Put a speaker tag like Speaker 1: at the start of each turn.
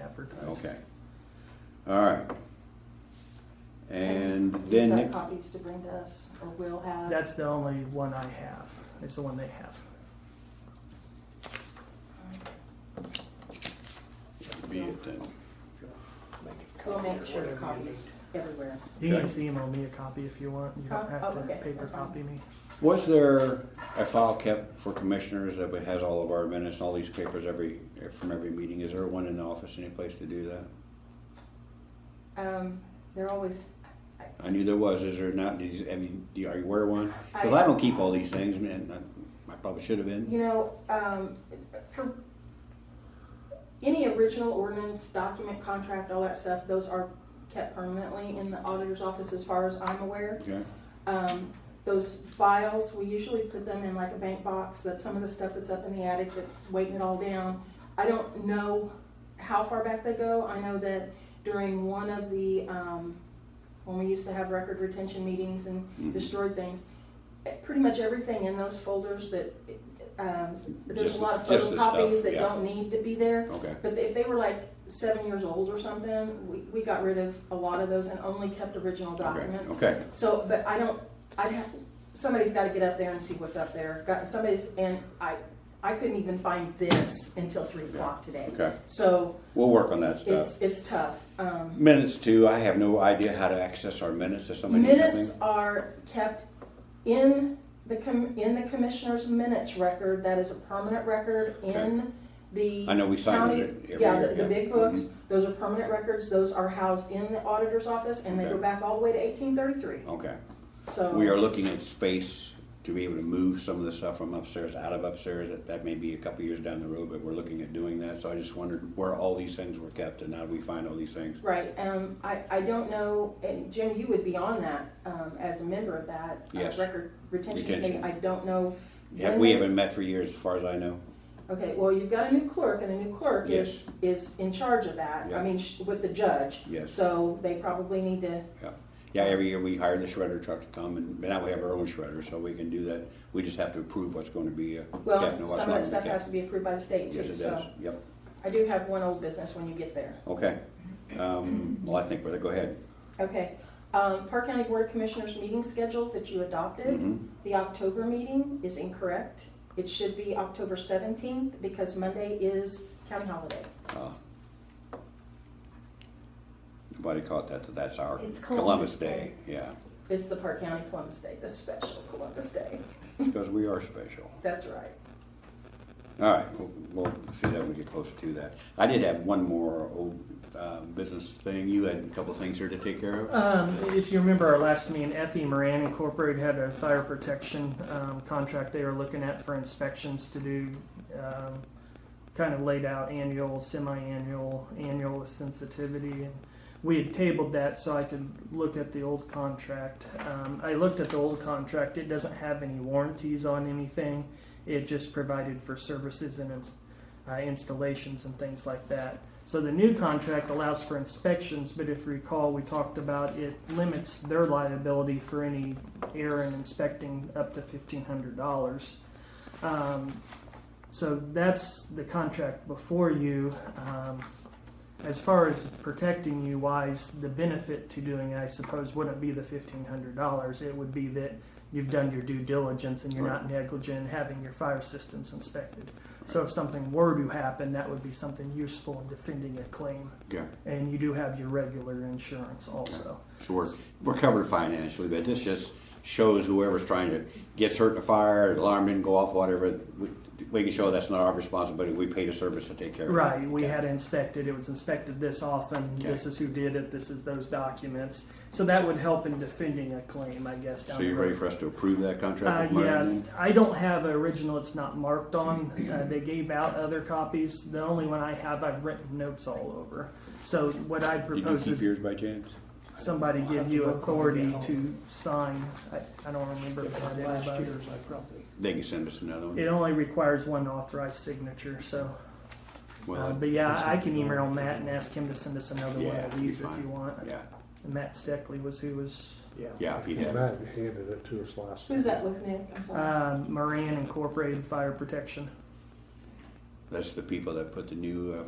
Speaker 1: advertised.
Speaker 2: Okay. All right. And then,
Speaker 3: You've
Speaker 2: Nick-
Speaker 3: got copies to bring to us, or will have.
Speaker 1: That's the only one I have. It's the one they have.
Speaker 2: be it then.
Speaker 3: We'll make sure the copies everywhere.
Speaker 1: You can
Speaker 2: Okay.
Speaker 1: just email me a copy if you want. You
Speaker 3: Oh,
Speaker 1: don't
Speaker 3: oh,
Speaker 1: have to
Speaker 3: okay,
Speaker 1: paper
Speaker 3: that's fine.
Speaker 1: copy me.
Speaker 2: Was there a file kept for commissioners that has all of our minutes, all these papers every, from every meeting? Is there one in the office, any place to do that?
Speaker 3: Um, they're always,
Speaker 2: I knew there was, is there not, Did you- I mean, do you- are you aware of one? Cause I don't keep all these things, man, I- I probably should have been.
Speaker 3: you know, um, for any original ordinance, document, contract, all that stuff, those are kept permanently in the auditor's office as far as I'm aware.
Speaker 2: Okay,
Speaker 3: Um, those files, we usually put them in like a bank box, that some of the stuff that's up in the attic that's weighting it all down. I don't know how far back they go. I know that during one of the, um, when we used to have record retention meetings
Speaker 2: Mhm.
Speaker 3: and destroyed things, eh, pretty much everything in those folders that, um, there's
Speaker 2: Just
Speaker 3: a
Speaker 2: the-
Speaker 3: lot of
Speaker 2: just the stuff,
Speaker 3: photocopies that
Speaker 2: yeah.
Speaker 3: don't need to be there.
Speaker 2: okay,
Speaker 3: But if they were like seven years old or something, we, we got rid of a lot of those and only kept original
Speaker 2: okay,
Speaker 3: documents.
Speaker 2: okay,
Speaker 3: So, but I don't, I'd have, somebody's gotta get up there and see what's up there, got, somebody's, and I, I couldn't even find this until three o'clock today.
Speaker 2: okay.
Speaker 3: So,
Speaker 2: We'll work on that stuff.
Speaker 3: it's, it's tough, um.
Speaker 2: Minutes too, I have no idea how to access our minutes if somebody needs
Speaker 3: Minutes
Speaker 2: something.
Speaker 3: are kept in the com, in the commissioner's minutes record, that is a permanent record in the.
Speaker 2: I know we sign
Speaker 3: county-
Speaker 2: it every
Speaker 3: Yeah,
Speaker 2: year,
Speaker 3: the, the
Speaker 2: yeah.
Speaker 3: big
Speaker 2: Mhm.
Speaker 3: books, those are permanent records, those are housed in the auditor's office, and they go
Speaker 2: Okay.
Speaker 3: back all the way to eighteen thirty-three,
Speaker 2: Okay.
Speaker 3: so.
Speaker 2: We are looking at space to be able to move some of the stuff from upstairs out of upstairs. That, that may be a couple years down the road, but we're looking at doing that. So I just wondered where all these things were kept and how do we find all these things?
Speaker 3: Right, um, I, I don't know, and Jim, you would be on that, um, as a member of that. uh,
Speaker 2: Yes.
Speaker 3: Record retention committee,
Speaker 2: Retention.
Speaker 3: I don't know.
Speaker 2: Yeah,
Speaker 3: when
Speaker 2: we
Speaker 3: they-
Speaker 2: haven't met for years, as far as I know.
Speaker 3: Okay, well, you've got a new clerk, and the new clerk is, is in charge of that,
Speaker 2: Yeah.
Speaker 3: I mean, sh- with the judge.
Speaker 2: Yes.
Speaker 3: So they probably need to,
Speaker 2: Yeah, yeah. every year we hire the shredder truck to come and, but now we have our own shredder, so we can do that. We just have to approve what's going to be uh, kept and
Speaker 3: well,
Speaker 2: what's
Speaker 3: some of
Speaker 2: not
Speaker 3: that
Speaker 2: gonna
Speaker 3: stuff
Speaker 2: be
Speaker 3: has
Speaker 2: kept.
Speaker 3: to be approved by the state too,
Speaker 2: Yes, it
Speaker 3: so.
Speaker 2: does, yep,
Speaker 3: I do have one old business when you get there.
Speaker 2: okay. Um, well, I think we're, go ahead.
Speaker 3: Okay, um, Park County Board of Commissioners meeting schedule that you adopted,
Speaker 2: Mhm.
Speaker 3: the October meeting is incorrect. It should be October seventeenth because Monday is county holiday.
Speaker 2: Uh, Nobody caught that, that that's our
Speaker 4: It's
Speaker 2: Columbus
Speaker 4: Columbus
Speaker 2: Day,
Speaker 4: Day.
Speaker 2: yeah,
Speaker 3: It's the Park County Columbus Day, the special Columbus Day.
Speaker 2: because we are special.
Speaker 3: That's right.
Speaker 2: All right, we'll, we'll see that when we get closer to that. I did have one more old, uh, business thing, you had a couple things here to take care of?
Speaker 1: Um, if you remember our last meeting, FE Moran Incorporated had a fire protection um, contract they were looking at for inspections to do. Um, kind of laid out annual, semi-annual, annual with sensitivity, and we had tabled that so I could look at the old contract. Um, I looked at the old contract; it doesn't have any warranties on anything. It just provided for services and ins- uh, installations and things like that. So the new contract allows for inspections, but if you recall, we talked about it limits their liability for any error in inspecting up to fifteen hundred dollars. Um, so that's the contract before you. Um, as far as protecting you wise, the benefit to doing it, I suppose, wouldn't be the fifteen hundred dollars. It would be that you've done your due diligence and you're not negligent in having your fire systems inspected. So if something were to happen, that would be something useful in defending a claim.
Speaker 2: Yeah.
Speaker 1: And you do have your regular insurance also.
Speaker 2: So we're, we're covered financially, but this just shows whoever's trying to, gets hurt in a fire, alarm didn't go off, whatever, we, we can show that's not our responsibility, we paid a service to take care of it.
Speaker 1: Right, we
Speaker 2: Okay.
Speaker 1: had inspected, it was inspected this often,
Speaker 2: Okay.
Speaker 1: this is who did it, this is those documents. So that would help in defending a claim, I guess, down
Speaker 2: So
Speaker 1: the
Speaker 2: you ready
Speaker 1: road.
Speaker 2: for us to approve that
Speaker 1: Uh,
Speaker 2: contract? with Myron
Speaker 1: yeah,
Speaker 2: then?
Speaker 1: I don't have an original, it's not marked on, uh, they gave out other copies, the only one I have, I've written notes all over. So what I
Speaker 2: Did you
Speaker 1: propose
Speaker 2: keep
Speaker 1: is
Speaker 2: yours by chance?
Speaker 1: somebody
Speaker 5: I'll
Speaker 1: give
Speaker 5: have
Speaker 1: you
Speaker 5: to look when I get
Speaker 1: authority
Speaker 5: home.
Speaker 1: to sign, I, I don't remember if I
Speaker 5: But
Speaker 1: did,
Speaker 5: Last
Speaker 1: but
Speaker 5: year's, I probably,
Speaker 2: They can send us another
Speaker 1: it
Speaker 2: one.
Speaker 1: only requires one authorized signature, so.
Speaker 2: Well,
Speaker 1: Uh, but yeah, I can email Matt and ask him to send us another one
Speaker 2: Yeah,
Speaker 1: of
Speaker 2: that'd be
Speaker 1: these if
Speaker 2: fine.
Speaker 1: you want.
Speaker 2: Yeah,
Speaker 1: Matt Steckley was who was
Speaker 5: yeah.
Speaker 2: yeah, he
Speaker 6: Yeah,
Speaker 2: did.
Speaker 6: Matt handed it to us last.
Speaker 3: Who's
Speaker 6: time.
Speaker 3: that with, Nick? I'm sorry.
Speaker 1: um, Moran Incorporated Fire Protection.
Speaker 2: That's the people that put the new uh,